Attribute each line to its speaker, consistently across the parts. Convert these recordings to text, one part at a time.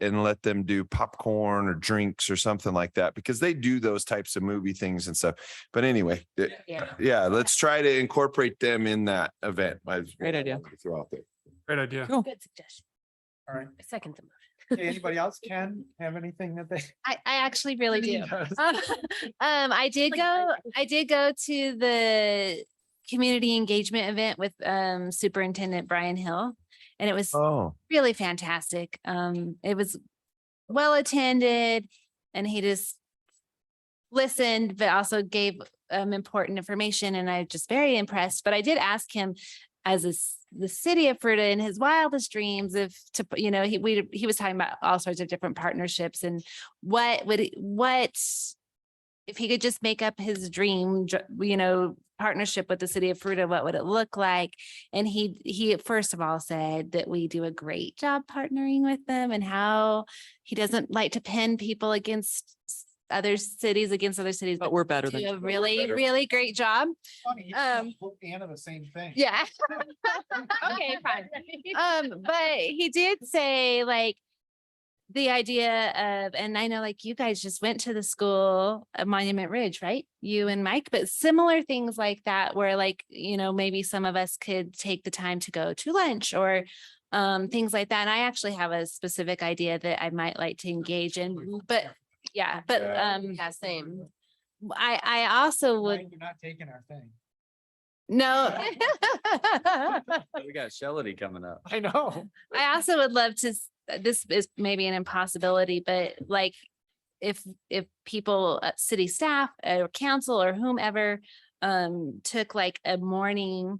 Speaker 1: and let them do popcorn or drinks or something like that because they do those types of movie things and stuff. But anyway, it-
Speaker 2: Yeah.
Speaker 1: yeah, let's try to incorporate them in that event. Might as well
Speaker 3: Great idea.
Speaker 1: Throw out there.
Speaker 4: Great idea.
Speaker 2: Good suggestion.
Speaker 5: All right.
Speaker 2: I second the motion.
Speaker 5: Okay, Anybody else can have anything that they?
Speaker 6: I, I actually really do.
Speaker 5: Yes.
Speaker 2: Uh,
Speaker 6: Um, um, I did
Speaker 2: Like,
Speaker 6: go,
Speaker 2: I-
Speaker 6: I did go to the community engagement event with, um, Superintendent Brian Hill. And it was
Speaker 1: Oh,
Speaker 6: really fantastic. Um, it was well attended and he just listened, but also gave um important information and I just very impressed. But I did ask him as a s the city of Fruta in his wildest dreams if to, put- you know, he we he was talking about all sorts of different partnerships and what would he- what if he could just make up his dream, dr- you know, partnership with the city of Fruta, what would it look like? And he, he first of all said that we do a great job partnering with them and how he doesn't like to pin people against s- other cities, against other cities,
Speaker 3: But
Speaker 6: but
Speaker 3: we're better
Speaker 6: do
Speaker 3: than.
Speaker 6: a really, really great job.
Speaker 5: Funny, you
Speaker 6: Um,
Speaker 5: told Anna the same thing.
Speaker 6: Yeah. Okay, fine. Um, but he did say like the idea of, and I know like you guys just went to the school at Monument Ridge, right? You and Mike, but similar things like that where like, you know, maybe some of us could take the time to go to lunch or um, things like that. And I actually have a specific idea that I might like to engage in, but yeah, but
Speaker 1: Yeah.
Speaker 6: um,
Speaker 2: Yeah, same.
Speaker 6: I, I also would,
Speaker 5: Mind You're not taking our thing.
Speaker 6: no.
Speaker 7: We got Shelley coming up.
Speaker 5: I know.
Speaker 6: I also would love to, s- this is maybe an impossibility, but like if, if people, uh, city staff uh, or council or whomever, um, took like a morning,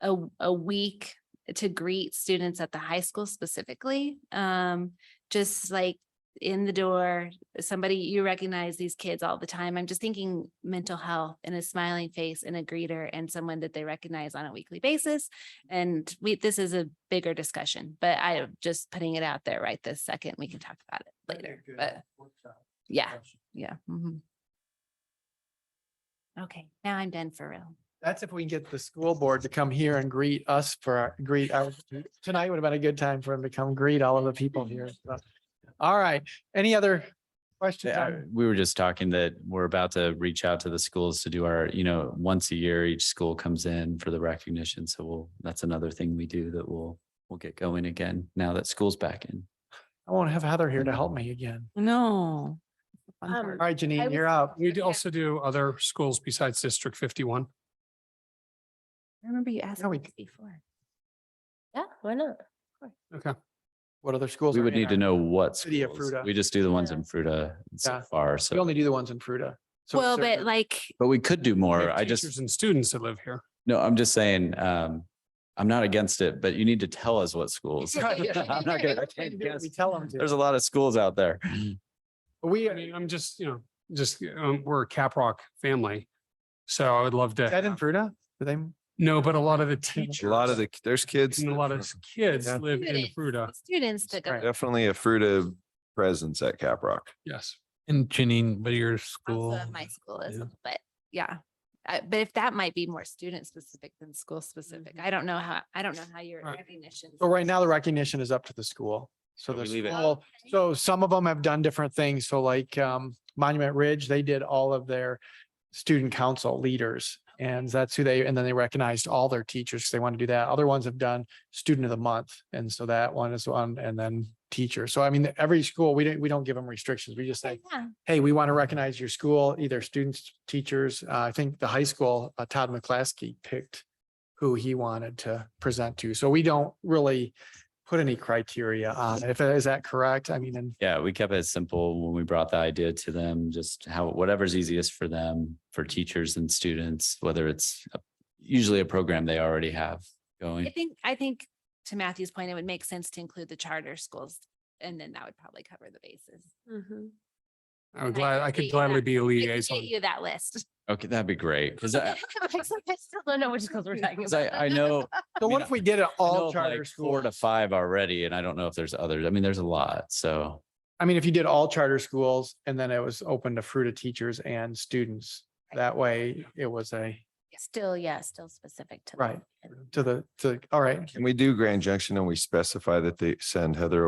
Speaker 6: a, a week to greet students at the high school specifically, um, just like in the door, somebody, you recognize these kids all the time. I'm just thinking mental health and a smiling face and a greeter and someone that they recognize on a weekly basis. And we, this is a bigger discussion, but I'm just putting it out there right this second. We can talk about it
Speaker 5: That'd be a
Speaker 6: later,
Speaker 5: good
Speaker 6: but
Speaker 5: workshop
Speaker 6: yeah,
Speaker 5: session.
Speaker 6: yeah. mhm. Okay, now I'm done for real.
Speaker 5: That's if we can get the school board to come here and greet us for, our greet, our- tonight would have been a good time for him to come greet all of the people here. so. All right, any other questions?
Speaker 7: Yeah,
Speaker 5: on-
Speaker 7: we were just talking that we're about to reach out to the schools to do our, you know, once a year, each school comes in for the recognition. So we'll, that's another thing we do that we'll, we'll get going again now that school's back in.
Speaker 5: I won't have Heather here to help me again.
Speaker 3: No. Fun
Speaker 2: Um,
Speaker 3: part.
Speaker 5: All right,
Speaker 2: I
Speaker 5: Janine,
Speaker 2: was-
Speaker 5: you're up.
Speaker 4: We do
Speaker 2: Yeah.
Speaker 4: also do other schools besides District fifty-one.
Speaker 6: I remember you asked
Speaker 5: we
Speaker 6: me
Speaker 5: c-
Speaker 6: this before.
Speaker 2: Yeah, why not?
Speaker 4: Okay.
Speaker 5: What other schools?
Speaker 7: We
Speaker 5: are
Speaker 7: would
Speaker 5: in
Speaker 7: need to
Speaker 5: our-
Speaker 7: know what
Speaker 5: City of
Speaker 7: schools.
Speaker 5: Fruta.
Speaker 7: We just do the ones in Fruta
Speaker 5: Yeah.
Speaker 7: so far.
Speaker 5: We
Speaker 7: So,
Speaker 5: only do the ones in Fruta. So
Speaker 6: Well,
Speaker 5: is there-
Speaker 6: but like,
Speaker 7: but we could do
Speaker 4: We
Speaker 7: more.
Speaker 4: have
Speaker 7: I just.
Speaker 4: Teachers and students that live here.
Speaker 7: No, I'm just saying, um, I'm not against it, but you need to tell us what schools. I'm not gonna, I can't guess.
Speaker 5: We tell them
Speaker 7: There's a
Speaker 5: to.
Speaker 7: lot of schools out there.
Speaker 5: We,
Speaker 4: I mean, I'm just, you know, just, um, we're a Caprock family. So I would love
Speaker 5: is that
Speaker 4: to,
Speaker 5: in Fruta? Do they?
Speaker 4: no, but a lot of the
Speaker 1: a
Speaker 4: teachers.
Speaker 1: lot of the, there's kids.
Speaker 4: And a lot of kids
Speaker 5: Yeah.
Speaker 4: live in
Speaker 6: Students.
Speaker 4: Fruta.
Speaker 6: students that go.
Speaker 5: Right.
Speaker 1: Definitely a Fruita presence at Caprock.
Speaker 4: Yes.
Speaker 8: And Janine, but your
Speaker 6: also
Speaker 8: school,
Speaker 6: of my school is,
Speaker 8: yeah.
Speaker 6: but yeah. Uh, but if that might be more student specific than school specific, I don't know how, I don't know how your
Speaker 4: Right.
Speaker 6: recognition.
Speaker 5: So oh, right now the recognition is up to the school. So
Speaker 7: So
Speaker 5: the
Speaker 7: we leave it-
Speaker 5: school, so some of them have done different things. So like um Monument Ridge, they did all of their student council leaders. And that's who they, and then they recognized all their teachers. 'cause They want to do that. Other ones have done student of the month. And so that one is one and then teacher. So I mean, every school, we don't, we don't give them restrictions. We just say, hey, we want to recognize your school, either students, teachers. Uh, I think the high school, uh, Todd McClaskey picked who he wanted to present to. So we don't really put any criteria on it. If, is that correct? I mean, and
Speaker 7: Yeah, we kept it simple when we brought the idea to them, just how, whatever's easiest for them, for teachers and students, whether it's a- usually a program they already have
Speaker 6: I
Speaker 7: going.
Speaker 6: think, I think to Matthew's point, it would make sense to include the charter schools and then that would probably cover the bases. Mm-hmm.
Speaker 4: I would
Speaker 6: I
Speaker 4: glad,
Speaker 6: could
Speaker 4: I
Speaker 6: get
Speaker 4: could
Speaker 6: you that.
Speaker 4: gladly be a
Speaker 6: I could
Speaker 4: liaison.
Speaker 6: Get you that list.
Speaker 7: Okay, that'd be great. Cause I,
Speaker 2: Mike's like, I still don't know which schools we're talking
Speaker 7: 'cause I,
Speaker 2: about.
Speaker 7: Uh, I know,
Speaker 5: so what
Speaker 7: mean,
Speaker 5: if we did it
Speaker 7: I know
Speaker 5: all
Speaker 7: of
Speaker 5: charter
Speaker 7: like four to
Speaker 5: schools?
Speaker 7: five already, and I don't know if there's others. I mean, there's a lot. So
Speaker 5: I mean, if you did all charter schools and then it was open to fruit of teachers and students, that way it was a,
Speaker 6: Still, yeah, still specific to. the
Speaker 5: Right. to the, to, all right.
Speaker 1: Can we do Grand Junction and we specify that they send Heather